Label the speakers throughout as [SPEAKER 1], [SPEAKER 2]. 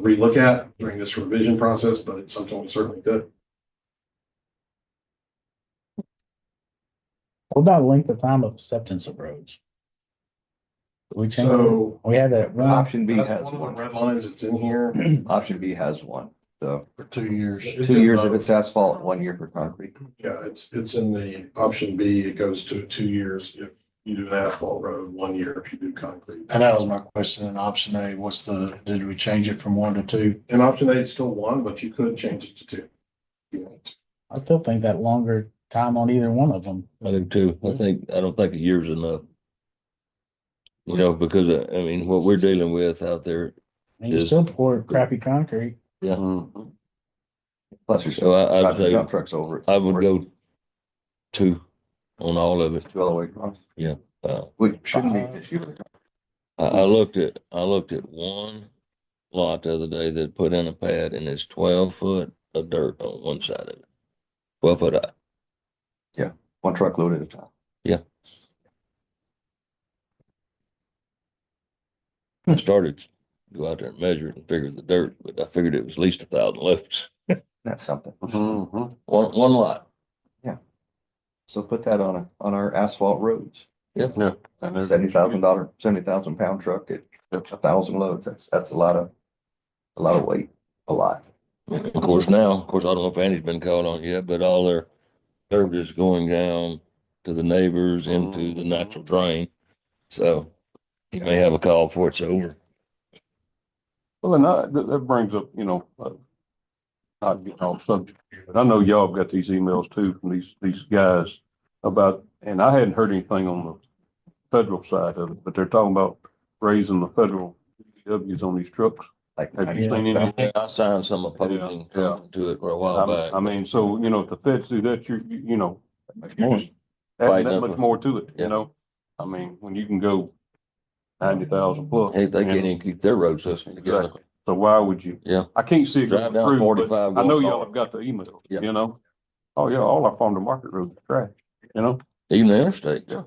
[SPEAKER 1] relook at during this revision process, but it's something we certainly could.
[SPEAKER 2] What about length of time of acceptance of roads? Did We changed,
[SPEAKER 1] So. uh,
[SPEAKER 2] we had that,
[SPEAKER 1] that-
[SPEAKER 3] Option B
[SPEAKER 1] that's
[SPEAKER 3] has
[SPEAKER 1] one of the
[SPEAKER 3] one.
[SPEAKER 1] Red lines that's in here.
[SPEAKER 3] Option B has one, so
[SPEAKER 4] for two years.
[SPEAKER 1] It's
[SPEAKER 3] two
[SPEAKER 1] in
[SPEAKER 3] years if
[SPEAKER 1] both.
[SPEAKER 3] it's asphalt, one year for concrete.
[SPEAKER 1] Yeah, it's, it's in the option B, it goes to two years if you do an asphalt road, one year if you do concrete.
[SPEAKER 4] And that was my question in option A, what's the, did we change it from one to two?
[SPEAKER 1] And option A is still one, but you could change it to two. Yeah.
[SPEAKER 2] I still think that longer time on either one of them.
[SPEAKER 5] I do too. I
[SPEAKER 2] Mhm.
[SPEAKER 5] think, I don't think a year's enough. You know, because uh, I mean, what we're dealing with out there,
[SPEAKER 2] And you
[SPEAKER 5] Is-
[SPEAKER 2] still pour crappy concrete.
[SPEAKER 3] Plus there's.
[SPEAKER 5] so Oh, I, I'd
[SPEAKER 3] Driving
[SPEAKER 5] say
[SPEAKER 3] dump Trucks over. it.
[SPEAKER 5] I would go two on all of it.
[SPEAKER 3] Two all the way across,
[SPEAKER 5] Uh,
[SPEAKER 3] which shouldn't be an issue.
[SPEAKER 5] I, I looked at, I looked at one lot the other day that put in a pad and it's twelve foot of dirt on one side of it. Twelve foot high.
[SPEAKER 3] One truck load at a time.
[SPEAKER 5] I started to go out there and measure it and figure the dirt, but I figured it was at least a thousand loads.
[SPEAKER 3] That's something.
[SPEAKER 5] One, one lot.
[SPEAKER 3] So put that on, a- on our asphalt roads.
[SPEAKER 5] Yeah.
[SPEAKER 3] Seventy thousand dollar, seventy thousand pound truck at a thousand loads. That's, that's a lot of, a lot of weight, a lot.
[SPEAKER 5] Of course, now, of course, I don't know if Andy's been called on yet, but all their dirt is going down to the neighbors into the natural drain. So he may have a call before it's over.
[SPEAKER 6] Well, and I- that, that brings up, you know, uh, not getting off subject, here, but I know y'all have got these emails too from these, these guys about, and I hadn't heard anything on the federal side of it, but they're talking about raising the federal W's on these trucks.
[SPEAKER 3] Like,
[SPEAKER 6] Have you
[SPEAKER 2] Yeah.
[SPEAKER 6] seen any?
[SPEAKER 5] I signed some opposing
[SPEAKER 6] opposing Yeah, yeah.
[SPEAKER 5] to it for a while
[SPEAKER 6] I I
[SPEAKER 5] back.
[SPEAKER 6] mean, so, you know, if the feds do that, you're, you you know,
[SPEAKER 5] More.
[SPEAKER 6] you're just adding
[SPEAKER 5] Fighting
[SPEAKER 6] that
[SPEAKER 5] over-
[SPEAKER 6] much more to it,
[SPEAKER 5] Yeah.
[SPEAKER 6] you know? I mean, when you can go ninety thousand plus.
[SPEAKER 5] Hey, they
[SPEAKER 6] you know?
[SPEAKER 5] can't even keep their road system together.
[SPEAKER 6] Exactly. So why would you?
[SPEAKER 5] Yeah.
[SPEAKER 6] I can't see it
[SPEAKER 5] Drive
[SPEAKER 6] going
[SPEAKER 5] down
[SPEAKER 6] through, but
[SPEAKER 5] forty-five.
[SPEAKER 6] I know
[SPEAKER 5] going
[SPEAKER 6] y'all
[SPEAKER 5] north.
[SPEAKER 6] have got the email,
[SPEAKER 5] Yeah.
[SPEAKER 6] you know? Oh, yeah, all our farm to market roads are trash, you know?
[SPEAKER 5] Even the interstate.
[SPEAKER 6] Yeah.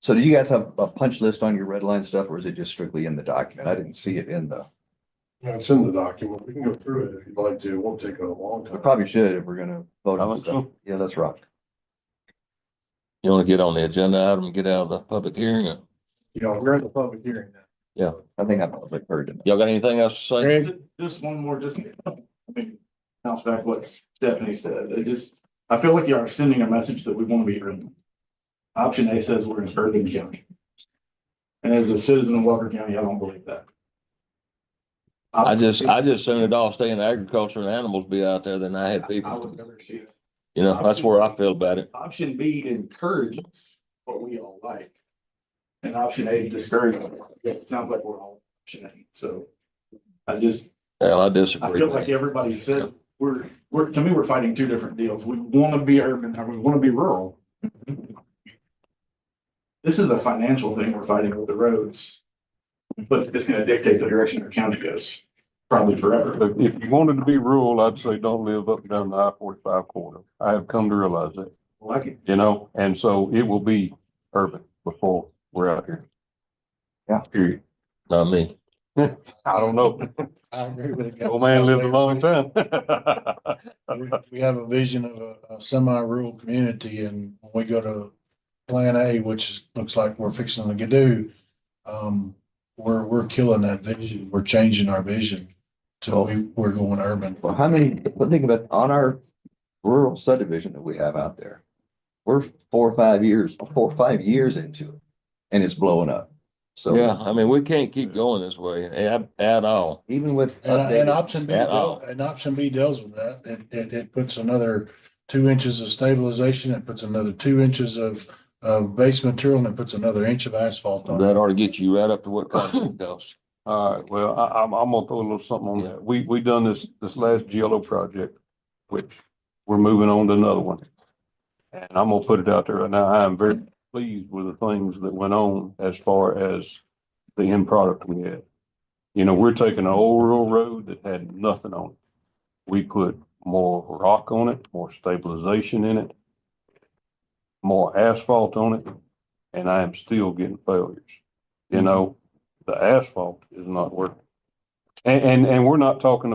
[SPEAKER 3] so do you guys have a punch list on your red line stuff or is it just strictly in the document? I didn't see it in the,
[SPEAKER 1] Yeah, it's in the document. We can go through it if you'd like to. It won't take a long
[SPEAKER 3] we
[SPEAKER 1] time.
[SPEAKER 3] probably should if we're gonna vote
[SPEAKER 6] I
[SPEAKER 3] on
[SPEAKER 6] think
[SPEAKER 3] stuff.
[SPEAKER 6] so.
[SPEAKER 3] Yeah, let's rock.
[SPEAKER 5] You want to get on the agenda item, and get out of the public hearing? or-
[SPEAKER 1] Yeah, we're in the public hearing now.
[SPEAKER 3] I think I've probably heard it.
[SPEAKER 5] Y'all got anything else to say?
[SPEAKER 2] Greg,
[SPEAKER 7] Just one more, just, I mean, bounce back what Stephanie said, it just, I feel like you are sending a message that we want to be urban. Option A says we're an urban county. And as a citizen of Walker County, I don't believe that.
[SPEAKER 5] I just, I just assumed it all stay in agriculture and animals be out there than I had
[SPEAKER 7] I
[SPEAKER 5] people.
[SPEAKER 7] would never see that.
[SPEAKER 5] You know, that's where I feel about it.
[SPEAKER 7] Option B encourages what we all like. And option A discourages. It sounds like we're all option A, so. I just,
[SPEAKER 5] Hell, I
[SPEAKER 7] I
[SPEAKER 5] disagree.
[SPEAKER 7] feel like
[SPEAKER 5] man.
[SPEAKER 7] everybody said, we're, we're, to me, we're fighting two different deals. We want to be urban and we want to be rural. This is a financial thing we're fighting with the roads. But it's gonna dictate the direction our county goes, probably forever.
[SPEAKER 6] But if you wanted to be rural, I'd say don't live up and down the I forty-five corridor. I have come to realize that,
[SPEAKER 7] Like it.
[SPEAKER 6] you know? And so it will be urban before we're out here.
[SPEAKER 3] Yeah.
[SPEAKER 6] Period.
[SPEAKER 5] Not me.
[SPEAKER 6] I don't know.
[SPEAKER 4] I agree with
[SPEAKER 6] Old man lived a long time.
[SPEAKER 4] We- We have a vision of a- a semi-rural community and when we go to Plan A, which is- looks like we're fixing to do, um, we're, we're killing that vision. We're changing our vision. So we, we're going urban.
[SPEAKER 3] Well, how many, but think about on our rural subdivision that we have out there. We're four or five years, four or five years into it and it's blowing up.
[SPEAKER 5] Yeah,
[SPEAKER 3] So
[SPEAKER 5] I mean, we can't keep going this way at, at all.
[SPEAKER 3] even with.
[SPEAKER 4] And, I- and
[SPEAKER 3] updated-
[SPEAKER 4] option B,
[SPEAKER 5] at
[SPEAKER 4] deal-
[SPEAKER 5] all.
[SPEAKER 4] and option B deals with that. It, it, it puts another two inches of stabilization. It puts another two inches of, of base material and it puts another inch of asphalt on. it.
[SPEAKER 5] That ought to get you right up to what concrete costs.
[SPEAKER 6] All right, well, I, I'm, I'm gonna throw a little something on
[SPEAKER 5] Yeah.
[SPEAKER 6] that. We, we done this, this last GLO project, which we're moving on to another one. And I'm gonna put it out there right now. I am very pleased with the things that went on as far as the end product we had. You know, we're taking an old rural road that had nothing on it. We put more rock on it, more stabilization in it, more asphalt on it, and I am still getting failures. You know, the asphalt is not working. And, and, and we're not talking